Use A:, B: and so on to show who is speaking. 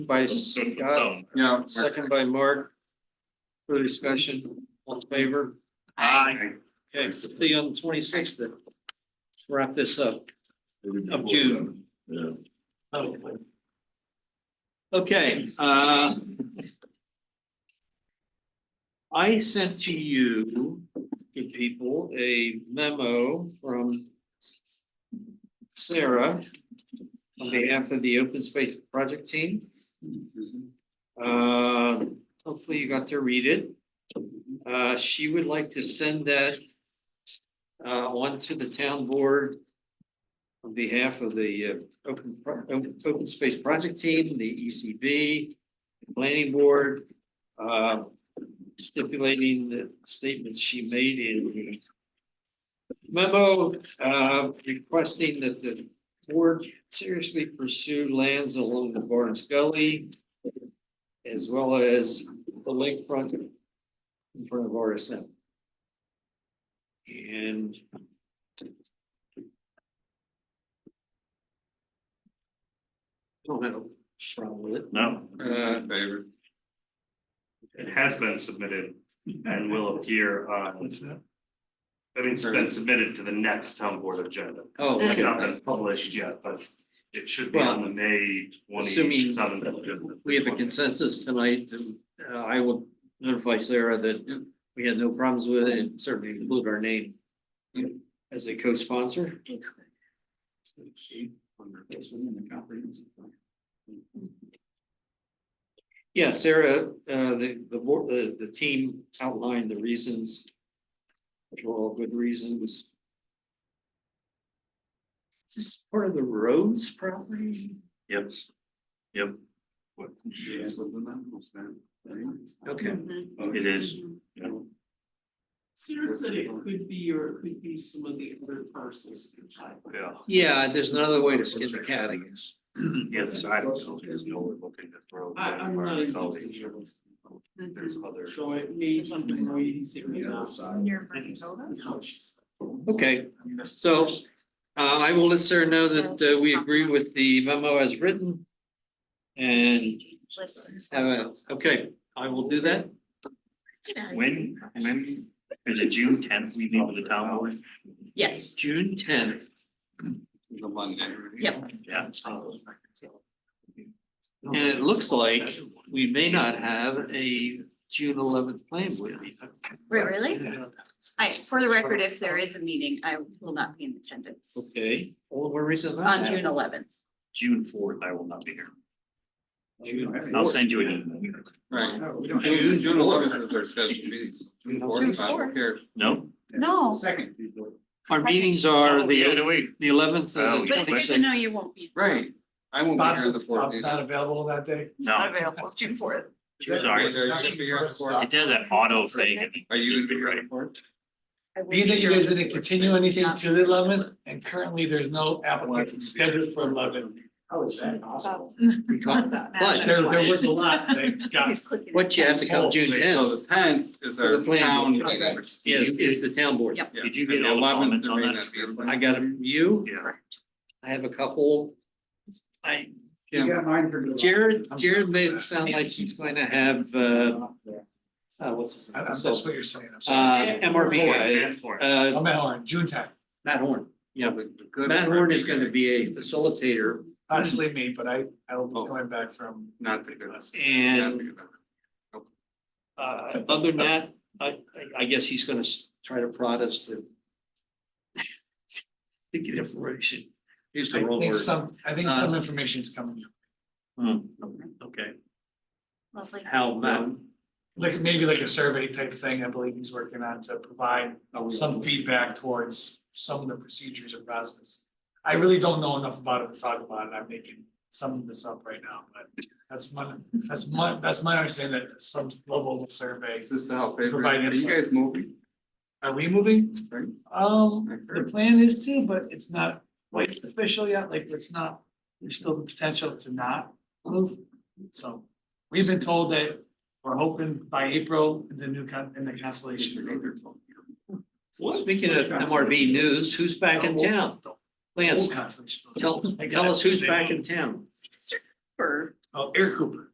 A: by Scott,
B: No.
A: yeah, second by Mark. Further discussion, all in favor?
B: Aye.
A: Okay, see you on the twenty-sixth then. Wrap this up of June.
B: Yeah.
A: Okay, uh. I sent to you, good people, a memo from Sarah on behalf of the Open Space Project Team. Uh, hopefully you got to read it. Uh, she would like to send that uh, on to the town board on behalf of the uh, Open, Pro- Open- Open Space Project Team, the ECB, the Planning Board, uh, stipulating the statements she made in the memo, uh, requesting that the board seriously pursue lands along the Barnes Gully as well as the lakefront in front of RSM. And don't have a problem with it.
B: No,
A: Uh,
C: Favorite.
B: it has been submitted and will appear on. What's that? I mean, it's been submitted to the next town board agenda.
A: oh,
B: It's
A: okay.
B: not been published yet, but it should be on the May
A: Assuming-
B: twenty seventh agenda.
A: we have a consensus tonight, and uh, I will notify Sarah that we had no problems with it, and certainly include our name as a co-sponsor. Yeah, Sarah, uh, the, the, board- the, the team outlined the reasons, which were all good reasons. Is this part of the roads property?
B: Yep, yep,
C: What, she's with the numbers then. right?
A: Okay.
D: Mm-hmm.
B: it is, yeah.
D: Seriously, it Mm-hmm. could be, or it could be some of the other parcels.
B: yeah.
A: Yeah, there's another way to skin the cat, I guess.
B: Yes, I don't know, there's no one looking to throw.
D: I, I'm not
B: It's
D: even.
B: always- There's other.
D: So it may be something we didn't see right now.
E: Near
A: Okay, so uh, I will let Sarah know that uh, we agree with the memo as written. And, have a- okay, I will do that.
B: When, when, is it June tenth we meet with the town board?
E: Yes,
A: June tenth.
C: The Monday. right?
E: Yep.
B: Yeah.
A: And it looks like we may not have a June eleventh plan board meeting.
E: Wait, really? I, for the record, if there is a meeting, I will not be in attendance
A: Okay, all the more reason not
E: on
A: to.
E: June eleventh.
B: June fourth, I will not be here.
A: June
B: I'll
A: fourth.
B: send you an email.
C: Right.
A: don't have-
C: June, June eleventh is our scheduled meeting. June
E: June
C: fourth, I don't
E: fourth.
C: care.
B: No?
E: No,
C: Second.
A: Our meetings are
B: Yeah,
A: the
B: no, wait.
A: the eleventh
B: Oh,
A: and the
E: but it's good to
A: twenty-sixth.
E: know you won't be.
C: Right, I won't be here on the fourth. either.
D: available that day.
E: Not
B: No,
E: available, June fourth.
B: Sorry.
C: Are you gonna be here on the fourth?
B: it does that auto thing.
C: Are you gonna be here on
B: right?
C: the fourth?
D: Either you guys didn't continue anything
E: Not-
D: to the eleventh, and currently there's no application scheduled for eleven. Oh, is that
A: But
D: There, there was a lot that got.
E: He's clicking his
A: what you have to come June
C: Okay, So
A: tenth
C: the tenth is
A: For
C: our
A: the planning
C: town
A: board.
C: meeting.
A: is is the town board.
E: Yep.
C: Yeah,
B: Did you
C: and
B: get
C: the
B: all the
C: 11th,
B: comments
C: there
B: on
C: may
B: that?
C: not be a plan.
A: I got it from you.
B: Yeah.
A: I have a couple. I,
C: Yeah,
A: Jared, Jared made it sound like he's going to have, uh, uh, what's his
D: I-
A: name?
D: I'm- That's what you're saying, I'm sorry.
A: Uh, MRB,
B: Fourth,
A: guy,
B: fourth.
A: uh,
D: I'm at Horn, June tenth,
A: Matt Horn. Yeah,
C: The- the good
A: Matt
C: part
A: Horn is gonna be a facilitator
D: possibly me, but I, I will be coming back from.
C: Not the good.
A: and,
C: Not the good.
A: uh, other than that, I, I- I guess he's gonna s- try to prod us to to get information. Use the
D: I
A: wrong
D: think
A: word.
D: some, I think some
A: Uh,
D: information's coming,
B: Hmm,
A: Okay,
E: Lovely.
A: how Matt,
D: like maybe like a survey type thing, I believe he's working on to provide some feedback towards some of the procedures and process. I really don't know enough about it to talk about it, I'm making some of this up right now, but that's my, that's my, that's my understanding that some level of
C: Is
D: surveys.
C: this to help pay for,
D: Provide
C: it? are you
D: input.
C: guys moving?
D: Are we moving?
C: Right.
D: Um,
C: I've
D: the
C: heard.
D: plan is to, but it's not like official yet, like it's not, there's still the potential to not move. So we've been told that we're hoping by April, the new con, in the constellation. agreement.
A: speaking of MRB news, who's back in town?
D: The whole
A: Lance,
D: constellation.
A: tell, tell us who's back in town.
E: Sister Cooper
D: Oh, Eric Cooper.